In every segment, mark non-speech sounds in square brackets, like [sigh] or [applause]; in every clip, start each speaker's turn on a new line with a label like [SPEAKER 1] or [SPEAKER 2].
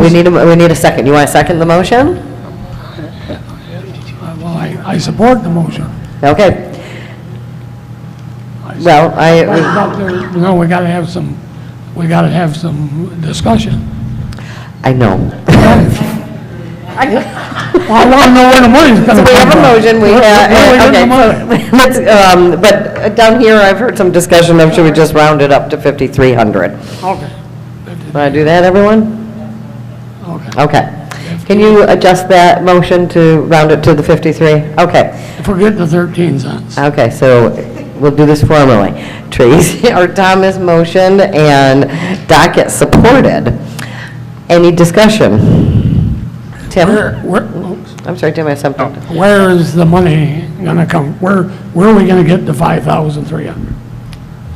[SPEAKER 1] We need, a- we need a second. You want to second the motion?
[SPEAKER 2] Well, I, I support the motion.
[SPEAKER 1] Okay.
[SPEAKER 2] I-
[SPEAKER 1] Well, I,
[SPEAKER 2] But there- No, we gotta have some, we gotta have some discussion.
[SPEAKER 1] I know.
[SPEAKER 2] Well, I wanna know where the money's
[SPEAKER 1] So
[SPEAKER 2] gonna come
[SPEAKER 1] we
[SPEAKER 2] from.
[SPEAKER 1] have a motion, we
[SPEAKER 2] Where-
[SPEAKER 1] have,
[SPEAKER 2] where we get the money?
[SPEAKER 1] okay. [laughs] Let's, um, but down here, I've heard some discussion of should we just round it up to 5,300?
[SPEAKER 2] Okay,
[SPEAKER 1] Want to do that, everyone?
[SPEAKER 2] okay.
[SPEAKER 1] Okay. Can you adjust that motion to round it to the 53? Okay.
[SPEAKER 2] Forget the 13 cents.
[SPEAKER 1] Okay, so we'll do this formally. Tracy, [laughs] or Thomas motioned and Dockett supported. Any discussion?
[SPEAKER 2] Where,
[SPEAKER 1] Tim?
[SPEAKER 2] where, oops.
[SPEAKER 1] I'm sorry, Tim, I have
[SPEAKER 2] Oh.
[SPEAKER 1] something.
[SPEAKER 2] where is the money gonna come? Where, where are we gonna get the 5,300?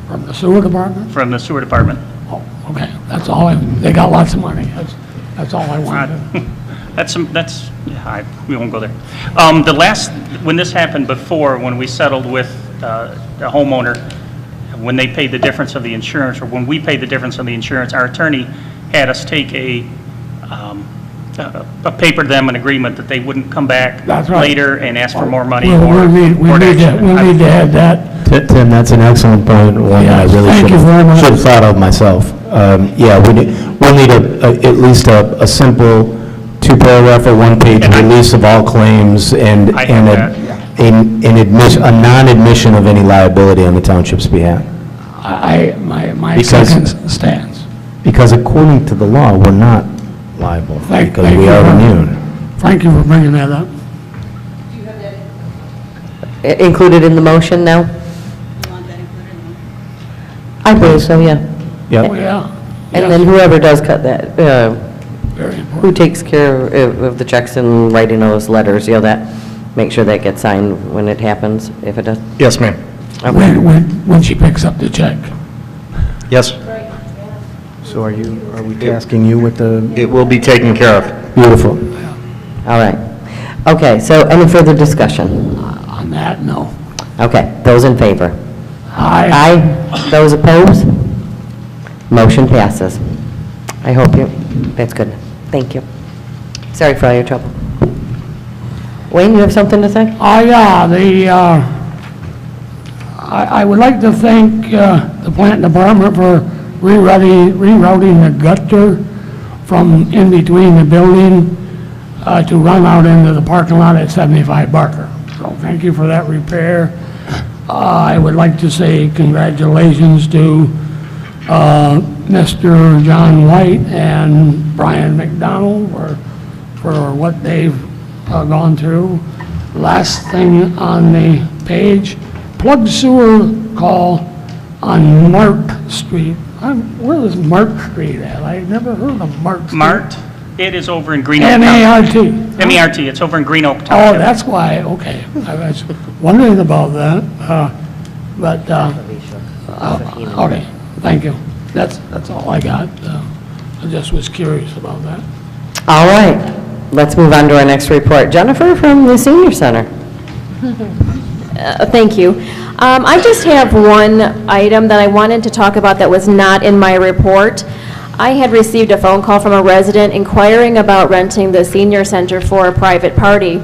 [SPEAKER 2] From the sewer department?
[SPEAKER 3] from the sewer department.
[SPEAKER 2] Oh, okay, that's all, I- they got lots of money, that's, that's all I wanted.
[SPEAKER 3] Uh, [laughs] That's, some- that's, yeah, I- we won't go there. Um, The last, when this happened before, when we settled with uh, the homeowner, when they paid the difference of the insurance, or when we paid the difference of the insurance, our attorney had us take a, um, a a paper to them, an agreement that they wouldn't come back
[SPEAKER 2] That's right.
[SPEAKER 3] later and ask for more money
[SPEAKER 2] Well,
[SPEAKER 3] or
[SPEAKER 2] we need, we
[SPEAKER 3] or
[SPEAKER 2] need to,
[SPEAKER 3] action.
[SPEAKER 2] we
[SPEAKER 3] I-
[SPEAKER 2] need to have that,
[SPEAKER 4] Ti- Tim, that's an excellent point, one that I
[SPEAKER 2] Yes,
[SPEAKER 4] really
[SPEAKER 2] thank
[SPEAKER 4] should
[SPEAKER 2] you very
[SPEAKER 4] have,
[SPEAKER 2] much.
[SPEAKER 4] should have thought of myself. Um, Yeah, we need, we'll need a, a- at least a, a simple two-paragraph or one-page
[SPEAKER 3] And I-
[SPEAKER 4] release of all claims and,
[SPEAKER 3] I
[SPEAKER 4] and
[SPEAKER 3] have
[SPEAKER 4] a- an an admission, a non-admission of any liability on the township's behalf.
[SPEAKER 2] I, I- my, my
[SPEAKER 4] Because-
[SPEAKER 2] second stance.
[SPEAKER 4] Because according to the law, we're not liable,
[SPEAKER 2] Thank-
[SPEAKER 4] because
[SPEAKER 2] thank
[SPEAKER 4] we
[SPEAKER 2] you
[SPEAKER 4] are
[SPEAKER 2] very much.
[SPEAKER 4] immune.
[SPEAKER 2] Thank you for bringing that up.
[SPEAKER 1] I- Included in the motion now? I believe so, yeah.
[SPEAKER 2] Oh,
[SPEAKER 4] Yep,
[SPEAKER 2] yeah.
[SPEAKER 1] And then whoever does cut that, uh,
[SPEAKER 2] Very important.
[SPEAKER 1] who takes care of of the checks and writing those letters, you know, that, make sure that gets signed when it happens, if it does?
[SPEAKER 5] Yes, ma'am.
[SPEAKER 1] Okay.
[SPEAKER 2] When, when, when she picks up the check.
[SPEAKER 5] Yes.
[SPEAKER 4] so are you, are we tasking you with the?
[SPEAKER 5] It will be taken care of.
[SPEAKER 4] Beautiful.
[SPEAKER 1] All right. Okay, so any further discussion?
[SPEAKER 2] On that, no.
[SPEAKER 1] Okay, those in favor?
[SPEAKER 2] I,
[SPEAKER 1] Aye. Those opposed? Motion passes. I hope you, that's good. Thank you. Sorry for all your trouble. Wayne, you have something to say?
[SPEAKER 2] oh, yeah, the, uh, I, I would like to thank, uh, the plant department for rerouting, rerouting the gutter from in between the building, uh, to run out into the parking lot at 75 Barker. So thank you for that repair. Uh, I would like to say congratulations to, uh, Mr. John White and Brian McDonald for, for what they've uh, gone through. Last thing on the page, plug sewer call on Mark Street. I'm- Where is Mark Street at? I've never heard of Mark Street.
[SPEAKER 3] Mart, it is over in Green Oak Township.
[SPEAKER 2] M-A-R-T.
[SPEAKER 3] MERT, it's over in Green Oak
[SPEAKER 2] Oh,
[SPEAKER 3] Township.
[SPEAKER 2] that's why, okay. I was wondering about that, uh, but, uh, uh, okay, thank you. That's, that's all I got. Uh, I just was curious about that.
[SPEAKER 1] All right, let's move on to our next report. Jennifer from the Senior Center.
[SPEAKER 6] Uh, Thank you. Um, I just have one item that I wanted to talk about that was not in my report. I had received a phone call from a resident inquiring about renting the senior center for a private party.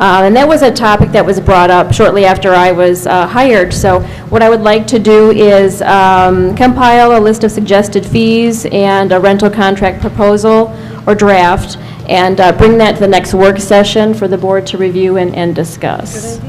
[SPEAKER 6] Uh, And that was a topic that was brought up shortly after I was uh, hired. So what I would like to do is um, compile a list of suggested fees and a rental contract proposal or draft, and uh, bring that to the next work session for the board to review and and discuss.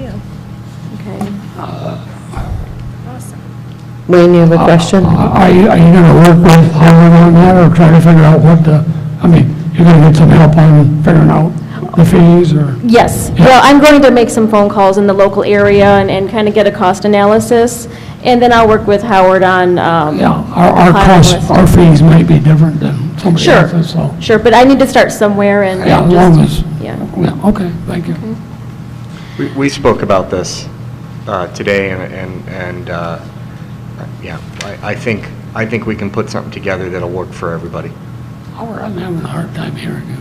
[SPEAKER 1] Wayne, you have
[SPEAKER 2] Uh,
[SPEAKER 1] a question?
[SPEAKER 2] Are you, are you going to work with Howard on that or try to figure out what the, I mean, you're going to get some help on figuring out the fees or?
[SPEAKER 6] Yes, well, I'm going to make some phone calls in the local area and, and kind of get a cost analysis, and then I'll work with Howard on, um...
[SPEAKER 2] Yeah, our, our
[SPEAKER 6] compiling a
[SPEAKER 2] costs,
[SPEAKER 6] list.
[SPEAKER 2] our fees might be different than somebody
[SPEAKER 6] Sure.
[SPEAKER 2] else's, so.
[SPEAKER 6] Sure, but I need to start somewhere and... and
[SPEAKER 2] Yeah, as
[SPEAKER 6] just-
[SPEAKER 2] long as,
[SPEAKER 6] Yeah.
[SPEAKER 2] yeah, okay, thank you.
[SPEAKER 7] We- We spoke about this uh, today, and- and, and, uh, yeah, I I think, I think we can put something together that'll work for everybody.
[SPEAKER 2] Howard, I'm having a hard time hearing you.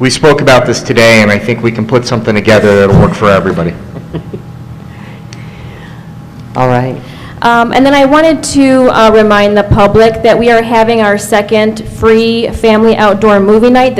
[SPEAKER 7] We spoke about this today, and I think we can put something together that'll work for everybody.
[SPEAKER 1] [laughs] All right.
[SPEAKER 6] Um, And then I wanted to uh, remind the public that we are having our second free family outdoor movie night